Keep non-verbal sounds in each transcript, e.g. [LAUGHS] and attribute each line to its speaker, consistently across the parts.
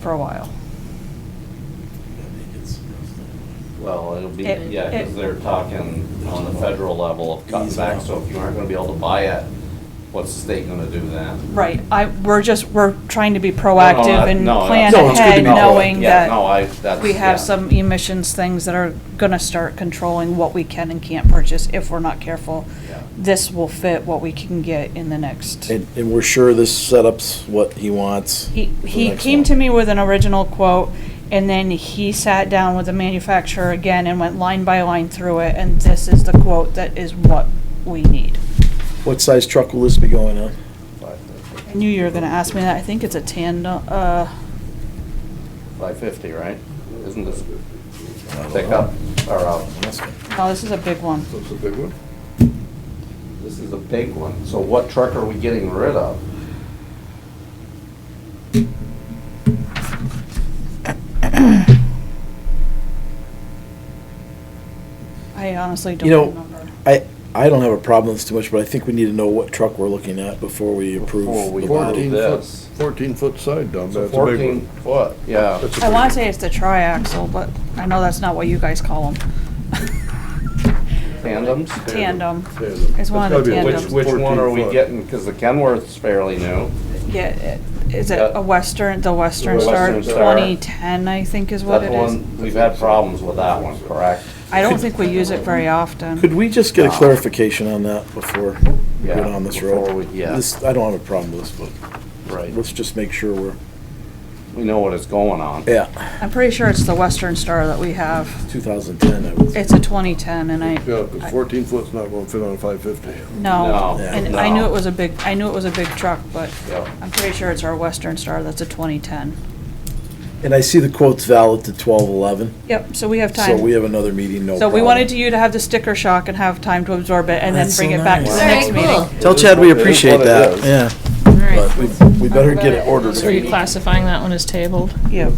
Speaker 1: for a while.
Speaker 2: Well, it'll be,
Speaker 1: It-
Speaker 2: yeah, because
Speaker 1: it-
Speaker 2: they're talking on the federal level of cutting back, so if you aren't gonna be able to buy it, what's the state gonna do then?
Speaker 1: Right, I, we're just, we're trying to be
Speaker 2: No, no,
Speaker 1: proactive
Speaker 2: I-
Speaker 1: and
Speaker 2: no,
Speaker 1: plan
Speaker 2: that's-
Speaker 3: No, it's good to
Speaker 1: ahead,
Speaker 3: be proactive.
Speaker 1: knowing
Speaker 2: Yeah, no, I-
Speaker 1: that
Speaker 2: that's-
Speaker 1: we
Speaker 2: yeah.
Speaker 1: have some emissions things that are gonna start controlling what we can and can't purchase if we're not careful.
Speaker 2: Yeah.
Speaker 1: This will fit what we can get in the next.
Speaker 3: And, and we're sure this setup's what he wants.
Speaker 1: He,
Speaker 3: for the
Speaker 1: he
Speaker 3: next
Speaker 1: came
Speaker 3: one.
Speaker 1: to me with an original quote, and then he sat down with the manufacturer again and went line by line through it, and this is the quote that is what we need.
Speaker 3: What size truck will this be going on?
Speaker 1: I knew you were gonna ask me that, I think it's a tandem, uh,
Speaker 2: Five fifty, right? Isn't this pickup, or, uh,
Speaker 1: no, this is a big one.
Speaker 4: That's a big one.
Speaker 2: this is a big one, so what truck are we getting rid of?
Speaker 1: I honestly
Speaker 3: You know,
Speaker 1: don't remember.
Speaker 3: I, I don't have a problem with this too much, but I think we need to know what truck we're looking at before we
Speaker 2: Before
Speaker 3: approve
Speaker 2: we
Speaker 3: the
Speaker 2: do
Speaker 3: body.
Speaker 4: foot,
Speaker 2: this.
Speaker 4: fourteen foot side dump,
Speaker 2: So
Speaker 4: that's a big
Speaker 2: fourteen
Speaker 4: one.
Speaker 2: foot, yeah.
Speaker 4: That's a
Speaker 1: I
Speaker 4: big
Speaker 1: wanna
Speaker 4: one.
Speaker 1: say it's the triaxle, but I know that's not what you guys call them.
Speaker 2: Tandems?
Speaker 1: Tandem,
Speaker 4: Tandem.
Speaker 1: It's one
Speaker 4: That's
Speaker 1: of the
Speaker 4: gotta be a
Speaker 2: Which,
Speaker 1: tandems.
Speaker 2: which one are
Speaker 4: 14
Speaker 2: we
Speaker 4: foot.
Speaker 2: getting? Because the Kenworth's fairly new.
Speaker 1: [LAUGHS] yeah, it- is it
Speaker 2: Yeah.
Speaker 1: a Western, the Western
Speaker 2: The
Speaker 1: Star
Speaker 2: Western Star.
Speaker 1: twenty-ten, I think is what
Speaker 2: That's
Speaker 1: it is.
Speaker 2: one, we've had problems with that one, correct?
Speaker 1: I don't think we use it very
Speaker 3: Could
Speaker 1: often.
Speaker 3: we just get a clarification on that before we
Speaker 2: Yeah,
Speaker 3: get on this
Speaker 2: before
Speaker 3: road?
Speaker 2: we- yeah.
Speaker 3: This, I don't have a problem with this, but
Speaker 2: Right.
Speaker 3: let's just make sure we're,
Speaker 2: We know what is going on.
Speaker 3: yeah,
Speaker 1: I'm pretty sure it's the Western Star that we have.
Speaker 3: two thousand ten, I would.
Speaker 1: It's a twenty-ten and I.
Speaker 4: Yeah, because
Speaker 1: I-
Speaker 4: fourteen foot's not gonna fit on a five fifty.
Speaker 1: No,
Speaker 2: No,
Speaker 1: and
Speaker 2: no.
Speaker 1: I knew it was a big, I knew it was a big truck, but
Speaker 2: Yeah.
Speaker 1: I'm pretty sure it's our Western Star that's a twenty-ten.
Speaker 3: And I see the quote's valid to twelve eleven,
Speaker 1: Yep, so we have
Speaker 3: so
Speaker 1: time.
Speaker 3: we have another meeting, no
Speaker 1: So
Speaker 3: problem.
Speaker 1: we wanted you to have the sticker shock and have time to absorb it and then
Speaker 3: That's
Speaker 1: bring
Speaker 3: so
Speaker 1: it back to the
Speaker 3: nice.
Speaker 1: next meeting.
Speaker 3: Tell Chad we
Speaker 4: It is what
Speaker 3: appreciate
Speaker 4: it
Speaker 3: that,
Speaker 4: is.
Speaker 3: yeah. But we, we better get it ordered.
Speaker 5: So you're classifying that one as tabled?
Speaker 1: Yep.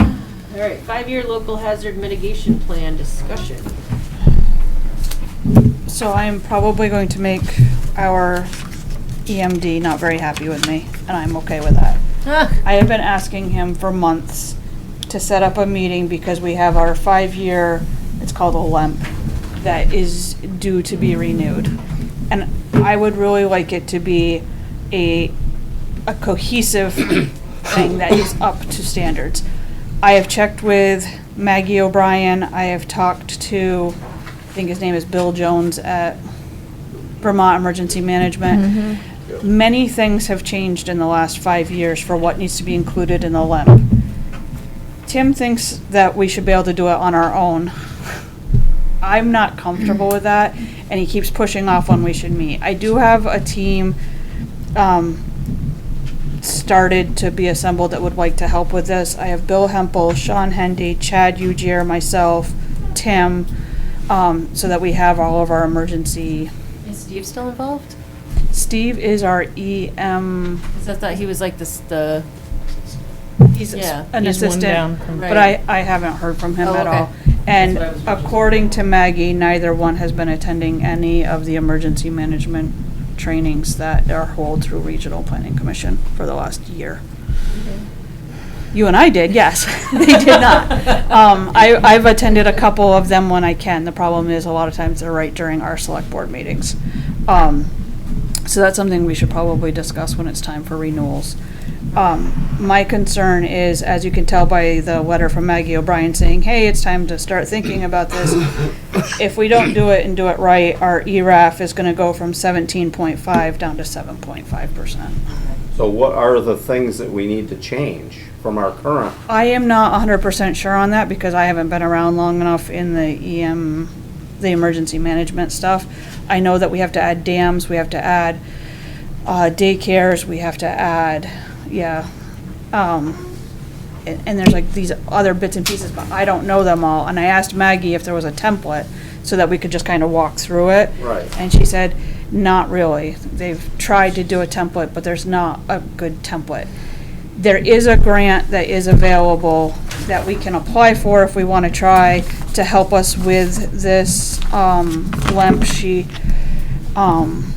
Speaker 6: All right, five-year local hazard mitigation plan discussion.
Speaker 1: So I'm probably going to make our EMD not very happy with me, and I'm okay with that. I have been asking him for months to set up a meeting because we have our five-year, it's called a LEMP, that is due to be renewed. And I would really like it to be a, a cohesive thing that is up to standards. I have checked with Maggie O'Brien, I have talked to, I think his name is Bill Jones at Vermont Emergency Management. Many things have changed in the last five years for what needs to be included in the LEMP. Tim thinks that we should be able to do it on our own. I'm not comfortable with that, and he keeps pushing off when we should meet. I do have a team, um, started to be assembled that would like to help with this. I have Bill Hempel, Sean Hendy, Chad Ujier, myself, Tim, um, so that we have all of our emergency.
Speaker 6: Is Steve still involved?
Speaker 1: Steve is our E EM,
Speaker 6: Because I thought he was like this, the,
Speaker 1: he's
Speaker 6: Yeah.
Speaker 1: an
Speaker 5: He's one down
Speaker 1: assistant,
Speaker 5: from.
Speaker 6: Right.
Speaker 1: but I, I haven't heard from him
Speaker 6: Oh,
Speaker 1: at
Speaker 6: okay.
Speaker 1: all. And
Speaker 6: That's what I was-
Speaker 1: according to Maggie, neither one has been attending any of the emergency management trainings that are held through Regional Planning Commission for the last year. You and I did, yes. [LAUGHS] They did
Speaker 6: [LAUGHS]
Speaker 1: not. Um, I, I've attended a couple of them when I can. The problem is, a lot of times they're right during our select board meetings. Um, so that's something we should probably discuss when it's time for renewals. Um, my concern is, as you can tell by the letter from Maggie O'Brien saying, hey, it's time to start thinking about this. If we don't do it and do it right, our E ERAF is gonna go from seventeen point five down to seven point five percent.
Speaker 2: So what are the things that we need to change from our current?
Speaker 1: I am not hundred percent sure on that because I haven't been around long enough in the EM, the emergency management stuff. I know that we have to add dams, we have to add, uh, daycares, we have to add, yeah. Um, and, and there's like these other bits and pieces, but I don't know them all. And I asked Maggie if there was a template so that we could just kind of walk through it.
Speaker 2: Right.
Speaker 1: And she said, not really. They've tried to do a template, but there's not a good template. There is a grant that is available that we can apply for if we want to try to help us with this, um, LEMP. She, um,